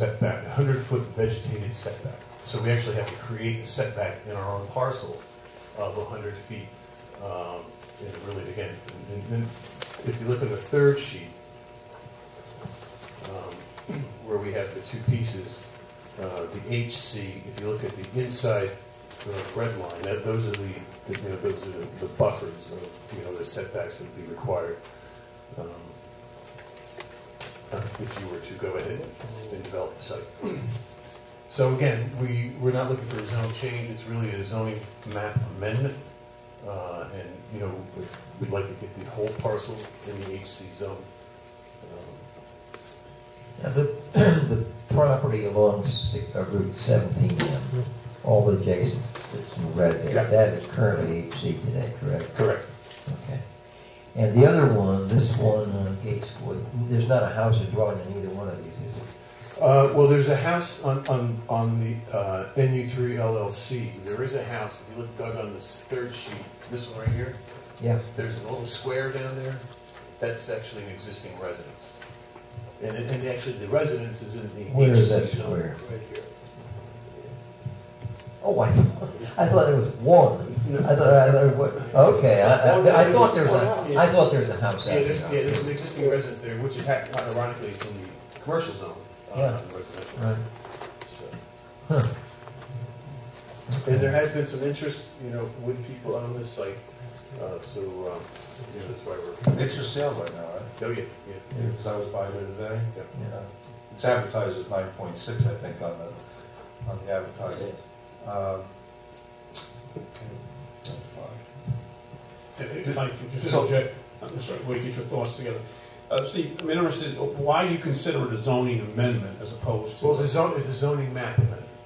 setback, 100-foot vegetated setback. So we actually have to create a setback in our own parcel of 100 feet. Um, And really, again, and then if you look at the third sheet, um, where we have the two pieces, uh, the HC, if you look at the inside uh, red line, that, those are the, the, you know, those are the buffers of, you know, the setbacks that would be required. um, uh, if you were to go ahead and develop the site. So again, we, we're not looking for a zone change, it's really a zoning map amendment. Uh, And, you know, we'd- we'd like to get the whole parcel in the HC zone. Um, Now, The, the property along Si- uh, Route 17, um, all adjacent, that's in red Yeah. there, that is currently HC today, correct? Correct. Okay. And the other one, this one on Gateswood, there's not a house or dwelling in either one of these, is there? Uh, Well, there's a house on, on, on the uh, NU3 LLC, there is a house, if you look, Doug, on this third sheet, this one right here, Yeah. There's a little square down there, that's actually an existing residence. And, it- and actually, the residence is in the. Where is HC that zone, square? Right here. Oh, I thought, I thought there was one. No. I thought, I thought, what- okay, I, I- I thought there was, a- I thought there was a house out Yeah, there's, yeah, there. there's an existing residence there, which is hap- ironically, it's in the commercial zone, uh, Yeah. not the residential. Right. So- Huh. And there has been some interest, you know, with people on this site, uh, so, um, you know, that's why we're, It's for sale right now, right? oh, yeah, yeah. Because I was by there today. Yeah. Yeah. It's advertised as nine point six, I think, on the, on the advertising. Um, okay, that's fine. If I could just So- interject, I'm sorry, we get your thoughts together. Uh, Steve, I'm interested, why do you consider it a zoning amendment as opposed to? Well, the zone, it's a zoning map,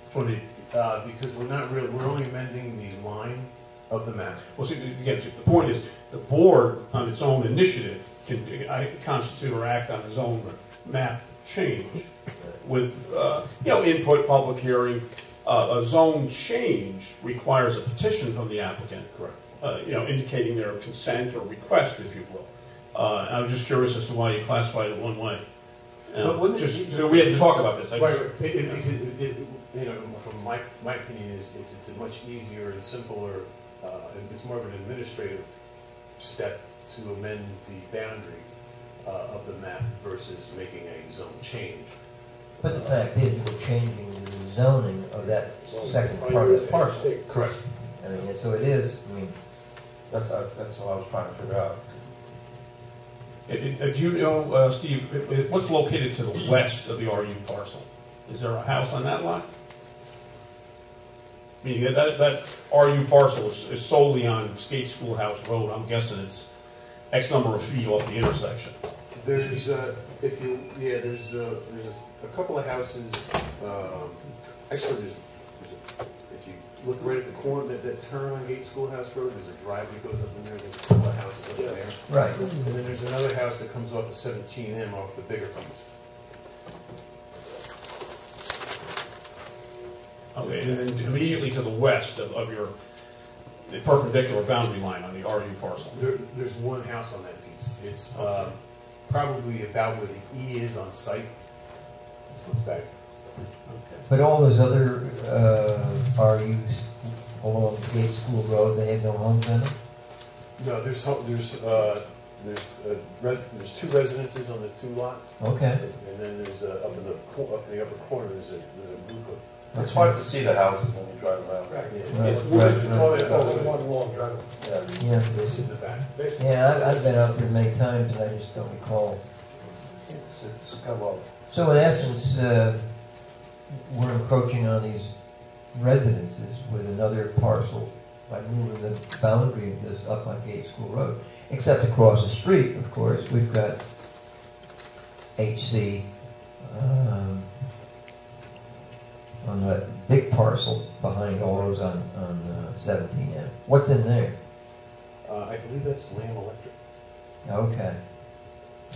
For the, uh, because we're not really, we're only amending the line of the map. well, see, again, the point is, the board on its own initiative can uh, constitute or act on its own map change with, uh, you know, input, public hearing. Uh, A zone change requires a petition from the applicant. Correct. uh, you know, indicating their consent or request, if you will. Uh, I was just curious as to why you classified it one way. You know, But wouldn't it just, be- so we had to talk about this. I Right, just, right. it, it, because it, it- you know, from my, my opinion is, it's, it's a much easier and simpler, uh, and it's more of an administrative step to amend the boundary, uh, of the map versus making a zone change. But the fact is, we're changing the zoning of that second part of the parcel. Correct. I mean, so it is, I mean, That's, how- that's what I was trying to figure out. Uh, uh, do you know, uh, Steve, uh, uh, what's located to the west of the RU parcel? Is there a house on that lot? I mean, that, that RU parcel is is solely on Skate Schoolhouse Road. I'm guessing it's X number of feet off the intersection. There's, uh, if you, yeah, there's, uh, there's a couple of houses, um, actually, there's, there's a- if you look right at the corner, that, that turn on Gate Schoolhouse Road, there's a drive that goes up in there, there's a couple of houses up in there. right. And then there's another house that comes off of seventeen M off the bigger homes. Okay, and then immediately to the west of, of your the perpendicular boundary line on the RU parcel. There, there's one house on that piece. It's, uh, probably about where the E is on site. This looks back. But all those other uh, RUs along Gate School Road, they have no homes in them? No, there's, ho- there's, uh, there's, uh, re- there's two residences on the two lots. Okay. And and then there's, uh, up in the, co- up in the upper corner, there's a, there's a group of. It's hard to see the houses when you drive around. Yeah, Right. It's wooded, it's all, it's all wooded. long driveway. Yeah, Yeah, It's in the back. yeah, I've, I've been out there many times and I just don't recall. it's, it's a couple of, So in essence, uh, we're encroaching on these residences with another parcel by moving the boundary of this up on Gate School Road. Except across the street, of course, we've got HC, um, on that big parcel behind all those on, on uh, seventeen M. What's in there? Uh, I believe that's Lamb Electric. Okay.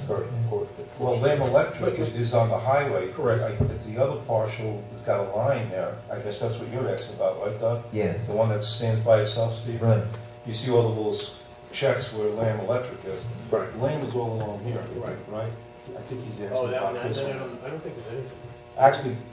Or- or- well, Lamb Electric is, is on the highway. Correct. I- but The other partial has got a line there. I guess that's what you're asking about, right, Doug? Yeah, The one that stands by itself, Steve? right. You see all the little s- checks where Lamb Electric is. Right. Lane was all along here. Right. Right? I think he's asking Oh, that one, about I I this one. don't, I don't think there's anything. actually